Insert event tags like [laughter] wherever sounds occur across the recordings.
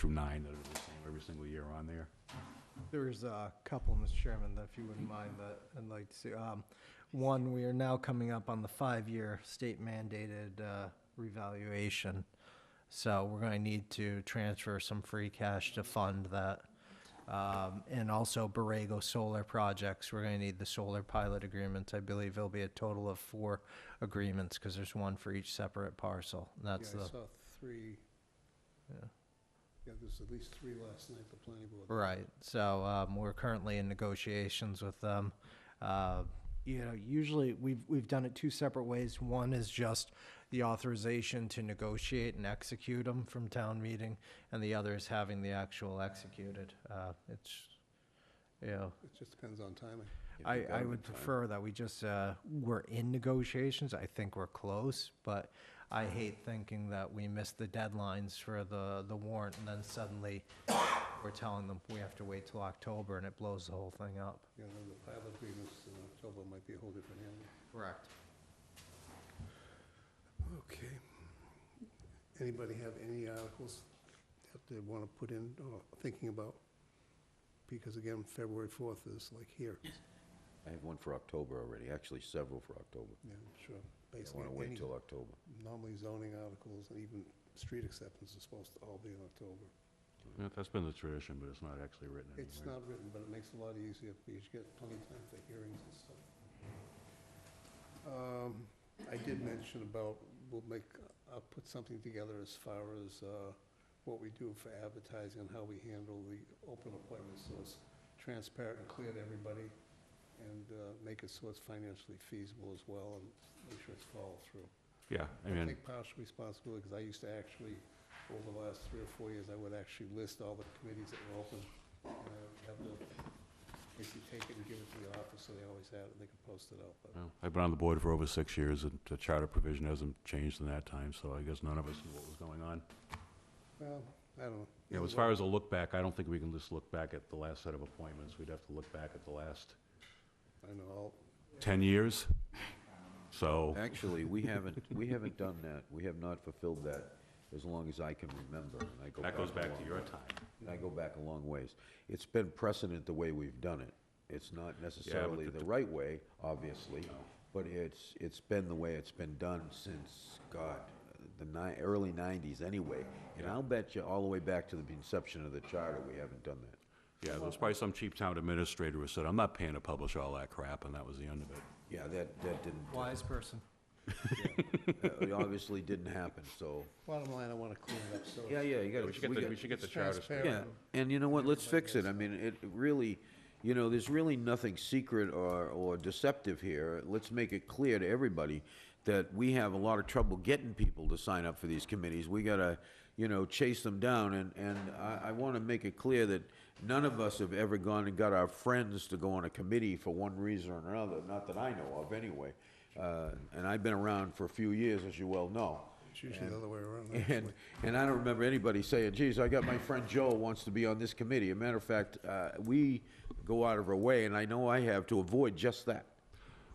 through nine that are the same every single year on there. There's a couple, Mr. Chairman, that if you wouldn't mind, that I'd like to see. Um, One, we are now coming up on the five-year state mandated uh, revaluation. So we're going to need to transfer some free cash to fund that. Um, And also Borrego Solar Projects, we're going to need the solar pilot agreements. I believe there'll be a total of four agreements because there's one for each separate parcel. And That's Yeah, I the, saw three. Yeah. Yeah, there's at least three last night, the planning board. Right. So um, we're currently in negotiations with them. Uh, you know, usually we've we've done it two separate ways. One is just the authorization to negotiate and execute them from town meeting, and the other is having the actual executed. Uh, it's, you know, It just depends on timing. I, I would prefer that we just, uh, we're in negotiations, I think we're close, but I hate thinking that we missed the deadlines for the, the warrant, and then suddenly we're telling them we have to wait till October, and it blows the whole thing up. You know, the pilot agreements in October might be a whole different animal. Correct. Okay. Anybody have any articles that they want to put in or thinking about? Because again, February 4th is like here, I have one for October already, actually several for October. yeah, I'm sure. I Basically, want to wait any- till October. Normally zoning articles and even street acceptance is supposed to all be in October. Yeah, That's been the tradition, but it's not actually written anywhere. It's not written, but it makes it a lot easier because you get plenty of time for hearings and stuff. Um, I did mention about, we'll make, I'll put something together as far as uh, what we do for advertising and how we handle the open appointments, so it's transparent and clear to everybody, and uh, make it so it's financially feasible as well, and make sure it's followed through. Yeah, I I mean, take partial responsibility, because I used to actually, over the last three or four years, I would actually list all the committees that were open. and I would have to basically take it and give it to the office, so they always had it, and they could post it out, but. well, I've been on the board for over six years, and the charter provision hasn't changed in that time, so I guess none of us knew what was going on. Well, I don't know. You know, as far as a look back, I don't think we can just look back at the last set of appointments. We'd have to look back at the last I know, I'll, 10 years. So, Actually, we haven't, we haven't done that. We have not fulfilled that as long as I can remember. and I go that goes a back to long your way. time. And I go back a long ways. It's been precedent the way we've done it. It's not necessarily the- the right way, obviously, but it's, it's been the way it's been done since, God, the ni, early nineties anyway. And I'll bet you all the way back to the inception of the charter, we haven't done that. Yeah, there was probably some cheap town administrator who said, I'm not paying to publish all that crap, and that was the end of it. Yeah, that, that didn't. uh, Wise person. That it Uh, obviously didn't happen, so, bottom line, I want to clean it up, so. yeah, yeah, you gotta. We should get, the- we should get the it's charter. straight. transparent. Yeah, and you know what, let's fix it, I mean, it it really, you know, there's really nothing secret or, or deceptive here. Let's make it clear to everybody that we have a lot of trouble getting people to sign up for these committees. We gotta, you know, chase them down, and, and I, I wanna make it clear that none of us have ever gone and got our friends to go on a committee for one reason or another, not that I know of, anyway. Uh, and I've been around for a few years, as you well know. It's usually the other way around. And, and I don't remember anybody saying, geez, I got my friend Joel wants to be on this committee. A matter of fact, uh, we go out of our way, and I know I have, to avoid just that.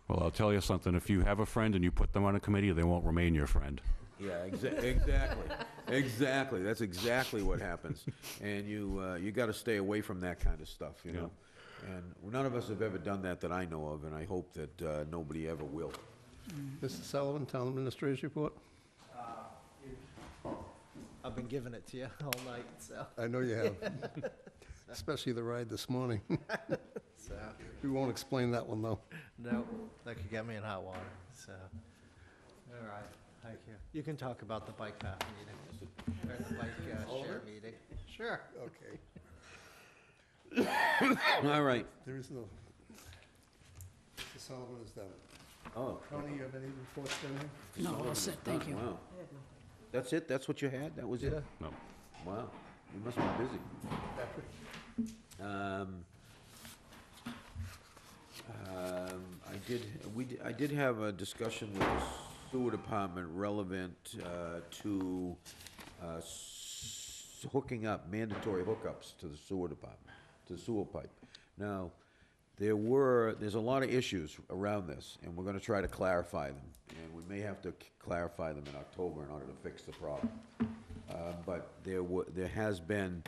Well, I'll tell you something, if you have a friend and you put them on a committee, they won't remain your friend. Yeah, [laughs] exa- exactly, exactly. That's exactly what happens. And you, uh, you gotta stay away from that kind of stuff, you know? And none of us have ever done that that I know of, and I hope that, uh, nobody ever will. Mr. Sullivan, town administrator's report? I've been giving it to you [laughs] all night, so. I know you have. [laughs] Especially the ride this morning. [laughs] We won't explain that one, though. Nope, that could get me in hot water, so. All right, thank you. You can talk about the bike path meeting, or the bike uh, share meeting. Sure. Okay. All right. There is no, Mr. Sullivan is done. Oh, Tony, you have any reports, Denny? No, all set, thank you. wow. That's it? That's what you had? That was it? No. Wow, you must be busy. Um, um, I did, we, d- I did have a discussion with the sewer department relevant, uh, to, uh, s- hooking up, mandatory hookups to the sewer department, to the sewer pipe. Now, there were, there's a lot of issues around this, and we're gonna try to clarify them, and we may have to c- clarify them in October in order to fix the problem. Uh, Uh, But there wa, there has been